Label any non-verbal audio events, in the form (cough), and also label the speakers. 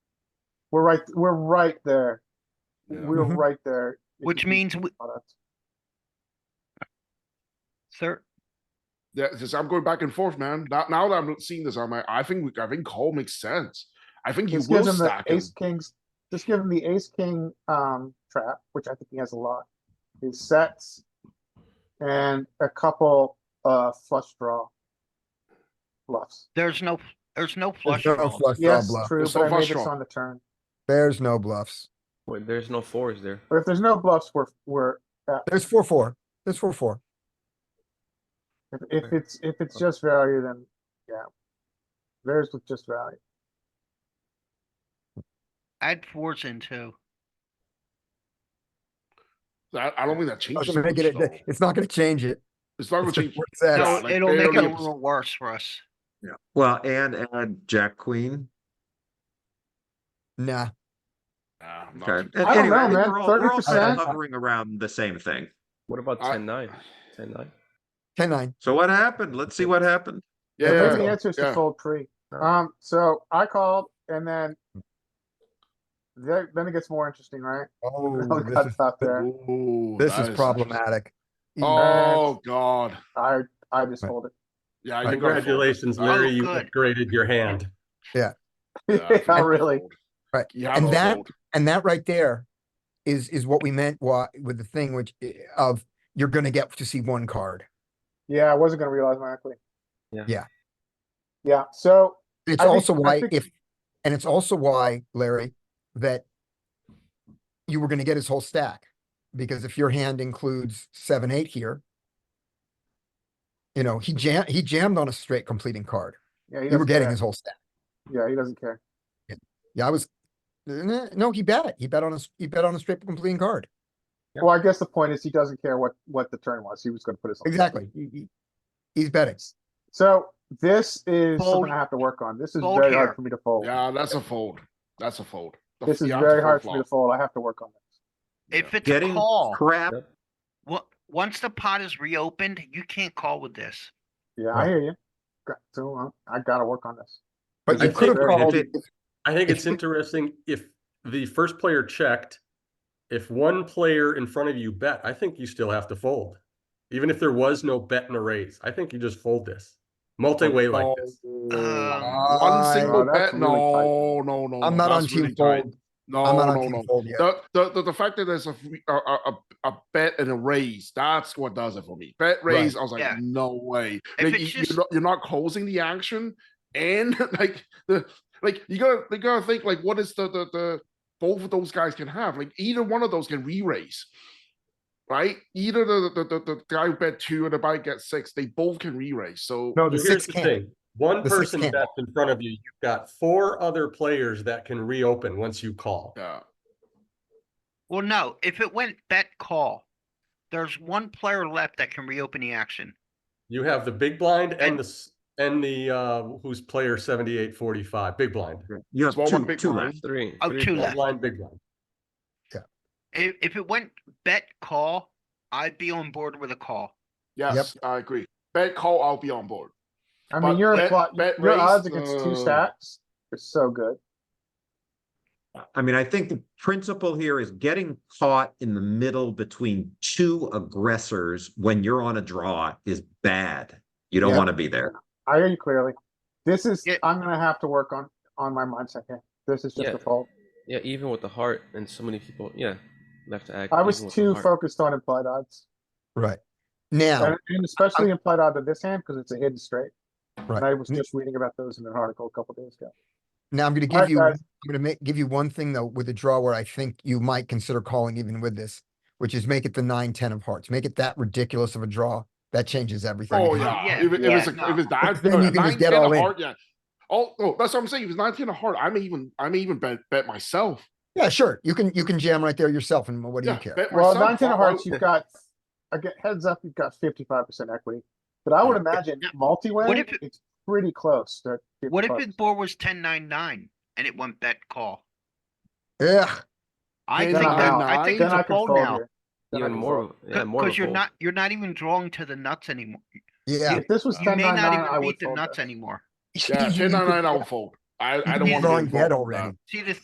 Speaker 1: We're right, we're right there. We're
Speaker 2: Mhm.
Speaker 1: right there. if
Speaker 3: Which
Speaker 1: you keep
Speaker 3: means, we-
Speaker 1: product.
Speaker 3: sir,
Speaker 2: Yeah, because I'm going back and forth, man. Now, now that I'm seeing this, I'm like, I think we- I think Cole makes sense. I think you
Speaker 1: Just
Speaker 2: will
Speaker 1: gives him the
Speaker 2: stack him.
Speaker 1: ace kings, just give him the ace king, um, trap, which I think he has a lot. He sets. And a couple, uh, flush draw. Bluffs.
Speaker 3: there's no, there's no
Speaker 4: There's
Speaker 3: flush
Speaker 4: no
Speaker 3: draws.
Speaker 4: flush draw
Speaker 1: Yes,
Speaker 4: bluff.
Speaker 1: true,
Speaker 2: There's
Speaker 1: but
Speaker 2: no
Speaker 1: I made
Speaker 2: flush
Speaker 1: this
Speaker 2: draw.
Speaker 1: on the turn.
Speaker 4: There's no bluffs.
Speaker 5: Wait, there's no fours there.
Speaker 1: But if there's no bluffs, we're, we're,
Speaker 4: There's four, four. There's four, four.
Speaker 1: if, if it's, if it's just value, then, yeah. There's with just value.
Speaker 3: Add fours in too.
Speaker 2: I, I don't think that changes.
Speaker 4: Doesn't make it-
Speaker 2: much, though.
Speaker 4: It's not gonna change it.
Speaker 2: It's not gonna
Speaker 4: It's just
Speaker 2: change.
Speaker 4: where it's at.
Speaker 3: No,
Speaker 2: like
Speaker 3: it'll make it
Speaker 2: barely
Speaker 3: a
Speaker 2: a-
Speaker 3: little worse for us.
Speaker 6: Well, and add jack queen.
Speaker 4: Nah,
Speaker 2: Nah, I'm not
Speaker 6: Okay.
Speaker 2: too-
Speaker 6: And
Speaker 1: I don't
Speaker 6: anyway,
Speaker 1: know,
Speaker 6: think
Speaker 1: man.
Speaker 6: we're all- we're all
Speaker 1: 30%?
Speaker 6: Hovering around the same thing.
Speaker 5: What about
Speaker 2: I-
Speaker 5: ten nine? Ten nine?
Speaker 4: ten, nine.
Speaker 6: So what happened? Let's see what happened.
Speaker 2: Yeah,
Speaker 1: I
Speaker 2: yeah,
Speaker 1: think the answer is to
Speaker 2: yeah.
Speaker 1: fold pre. Um, so I called and then. Then, then it gets more interesting, right? (laughs)
Speaker 4: Oh,
Speaker 1: I
Speaker 4: (laughs) this
Speaker 1: got
Speaker 4: is,
Speaker 1: stopped there.
Speaker 2: Ooh,
Speaker 4: this
Speaker 2: that
Speaker 4: is
Speaker 2: interesting.
Speaker 4: problematic.
Speaker 2: Oh god.
Speaker 1: I, I just
Speaker 4: Right.
Speaker 1: fold (laughs) it.
Speaker 2: Yeah, you gotta fold.
Speaker 5: Congratulations,
Speaker 2: Oh,
Speaker 3: Larry, you good.
Speaker 5: upgraded your hand.
Speaker 1: (laughs)
Speaker 2: Yeah, I think
Speaker 1: Not
Speaker 2: you
Speaker 1: really.
Speaker 2: fold.
Speaker 4: Right,
Speaker 2: You have
Speaker 4: and
Speaker 2: to
Speaker 4: that-
Speaker 2: fold.
Speaker 4: And that right there is, is what we meant why, with the thing which i- of you're gonna get to see one card.
Speaker 1: Yeah, I wasn't gonna realize my equity.
Speaker 5: Yeah.
Speaker 4: Yeah.
Speaker 1: Yeah, so
Speaker 4: It's
Speaker 1: I think-
Speaker 4: also
Speaker 1: I
Speaker 4: why
Speaker 1: think-
Speaker 4: if, and it's also why, Larry, that you were gonna get his whole stack, because if your hand includes seven, eight here, you know, he jam, he jammed on a straight completing card.
Speaker 1: yeah, he
Speaker 4: You were
Speaker 1: doesn't
Speaker 4: getting
Speaker 1: care.
Speaker 4: his whole stack.
Speaker 1: Yeah, he doesn't care.
Speaker 4: Yeah, I was, eh, no, he bet it. He bet on a, s- he bet on a straight completing card.
Speaker 5: Yeah.
Speaker 1: Well, I guess the point is he doesn't care what, what the turn was. He was gonna put his.
Speaker 4: Exactly. He- he- He's betting.
Speaker 1: So this is
Speaker 3: Fold.
Speaker 1: something I have to work on. This is
Speaker 3: Fold
Speaker 1: very
Speaker 3: here.
Speaker 1: hard for me to fold.
Speaker 2: Yeah, that's a fold. That's a fold. The-
Speaker 1: This is
Speaker 2: you have to
Speaker 1: very
Speaker 2: fold
Speaker 1: hard for me
Speaker 2: flop.
Speaker 1: to fold. I have to work on this.
Speaker 3: If it's a
Speaker 6: Getting
Speaker 3: call,
Speaker 6: crap.
Speaker 3: wa- once the pot is reopened, you can't call with this.
Speaker 1: Yeah, I
Speaker 4: Right.
Speaker 1: hear you. Got- So uh, I gotta work on this.
Speaker 4: But
Speaker 1: I
Speaker 4: you could have
Speaker 6: think-
Speaker 4: called,
Speaker 6: It-
Speaker 7: I think
Speaker 4: If
Speaker 7: it's
Speaker 4: we-
Speaker 7: interesting if the first player checked, if one player in front of you bet, I think you still have to fold. Even if there was no bet and a raise, I think you just fold this. Multi-way like this.
Speaker 3: Um,
Speaker 2: One
Speaker 4: I-
Speaker 2: single
Speaker 1: Oh,
Speaker 2: bet?
Speaker 1: that's really tight.
Speaker 2: No, no, no.
Speaker 4: I'm
Speaker 2: no,
Speaker 4: not on
Speaker 2: that's really
Speaker 4: team
Speaker 2: tight.
Speaker 4: fold.
Speaker 2: No,
Speaker 4: I'm not
Speaker 2: no,
Speaker 4: on team
Speaker 2: no.
Speaker 4: fold yet.
Speaker 2: The, the, the, the fact that there's a, free- a, a, a- a bet and a raise, that's what does it for me. Bet
Speaker 4: Right.
Speaker 2: raise, I was like,
Speaker 3: Yeah.
Speaker 2: no way.
Speaker 3: If
Speaker 2: Like,
Speaker 3: it's
Speaker 2: you,
Speaker 3: just-
Speaker 2: are not, you're not closing the action, and (laughs) like the like you gotta you gotta think like what is the the, the both of those guys can have like either one of those can re-raise, right? Either the the, the, the guy who bet two and the guy who gets six, they both can re-raise. So
Speaker 4: No, the
Speaker 7: Here's
Speaker 4: six
Speaker 7: the
Speaker 4: can't.
Speaker 7: thing. One
Speaker 4: The six
Speaker 7: person
Speaker 4: can't.
Speaker 7: bets in front of you, you've got four other players that can reopen once you call.
Speaker 2: yeah,
Speaker 3: Well, no, if it went bet call, there's one player left that can reopen the action.
Speaker 7: You have the big blind
Speaker 3: And-
Speaker 7: and the, s- and the, uh, who's player seventy-eight forty-five, big blind.
Speaker 6: You have
Speaker 2: Small one,
Speaker 6: two,
Speaker 2: big
Speaker 6: two
Speaker 2: one.
Speaker 6: left.
Speaker 5: Three.
Speaker 3: Oh,
Speaker 5: three
Speaker 3: two
Speaker 7: Small
Speaker 3: left.
Speaker 7: Blind, big blind.
Speaker 3: If, if it went bet call, I'd be on board with a call.
Speaker 2: yes, I agree. Bet call, I'll be on board.
Speaker 1: I
Speaker 2: But
Speaker 1: mean, your
Speaker 2: bet-
Speaker 1: impli-
Speaker 2: bet
Speaker 1: your odds
Speaker 2: raised,
Speaker 1: against
Speaker 2: uh,
Speaker 1: two stacks are so good.
Speaker 6: I mean, I think the principle here is getting caught in the middle between two aggressors when you're on a draw is bad. You don't
Speaker 4: Yeah.
Speaker 6: want to be there.
Speaker 1: I hear you clearly. This is
Speaker 3: Yeah.
Speaker 1: I'm gonna have to work on on my mindset here. This is just
Speaker 5: Yeah.
Speaker 1: a fault.
Speaker 5: Yeah, even with the heart and so many people, yeah, left to act.
Speaker 1: I
Speaker 5: even
Speaker 1: was
Speaker 5: with the
Speaker 1: too
Speaker 5: heart.
Speaker 1: focused on implied odds,
Speaker 4: Right. Now,
Speaker 1: and, and especially implied odds of this hand because it's a hidden straight.
Speaker 4: Right.
Speaker 1: And I was
Speaker 4: N-
Speaker 1: just reading about those in an article a couple days ago.
Speaker 4: now I'm gonna
Speaker 1: All
Speaker 4: give
Speaker 1: right,
Speaker 4: you,
Speaker 1: guys.
Speaker 4: I'm gonna make, give you one thing though with a draw where I think you might consider calling even with this, which is make it the nine, ten of hearts. Make it that ridiculous of a draw. That changes everything.
Speaker 2: Oh
Speaker 4: again.
Speaker 2: yeah,
Speaker 3: Yeah,
Speaker 2: if, it- if
Speaker 3: yeah,
Speaker 2: it's a,
Speaker 3: no.
Speaker 2: if it's that
Speaker 4: Then
Speaker 2: uh,
Speaker 4: you can just
Speaker 2: nine,
Speaker 4: get
Speaker 2: ten
Speaker 4: all
Speaker 2: of
Speaker 4: in.
Speaker 2: heart, yeah. Oh, no, that's what I'm saying. If it's nine ten of heart, I may even I may even bet bet myself.
Speaker 4: Yeah, sure. You can, you can jam right there yourself and what do you
Speaker 2: Yeah,
Speaker 4: care?
Speaker 2: bet
Speaker 1: Well,
Speaker 2: myself.
Speaker 1: nine ten of
Speaker 2: Why-
Speaker 1: hearts, you've got again heads up, you've got fifty five percent equity. But I would imagine
Speaker 3: Yeah. What
Speaker 1: multi-way,
Speaker 3: if it-
Speaker 1: it's pretty close. to
Speaker 3: What if
Speaker 1: 55%.
Speaker 3: his board was ten nine nine and it went bet call?
Speaker 4: Yeah,
Speaker 3: I
Speaker 2: Then
Speaker 3: think
Speaker 2: I'm
Speaker 3: that,
Speaker 2: out.
Speaker 3: I think
Speaker 1: Then
Speaker 3: it's
Speaker 1: I
Speaker 3: a
Speaker 1: can
Speaker 3: fold
Speaker 1: fold
Speaker 3: now.
Speaker 1: here. Then I
Speaker 5: Even
Speaker 1: can
Speaker 5: more,
Speaker 1: fold.
Speaker 5: of- yeah, more.
Speaker 3: Because
Speaker 5: of a
Speaker 3: you're
Speaker 5: fold.
Speaker 3: not, you're not even drawing to the nuts anymore.
Speaker 4: yeah.
Speaker 1: If this was
Speaker 3: You
Speaker 1: ten
Speaker 3: may
Speaker 1: nine
Speaker 3: not
Speaker 1: nine,
Speaker 3: even
Speaker 1: I would
Speaker 3: beat the
Speaker 1: fold
Speaker 3: nuts
Speaker 1: this.
Speaker 3: anymore.
Speaker 2: Yeah,
Speaker 4: You
Speaker 2: ten
Speaker 4: could-
Speaker 2: nine nine, I'll fold. I I don't
Speaker 4: you could
Speaker 2: want
Speaker 4: be
Speaker 2: to
Speaker 4: drawing
Speaker 2: get
Speaker 4: dead
Speaker 2: involved with that.
Speaker 4: already.
Speaker 3: See, the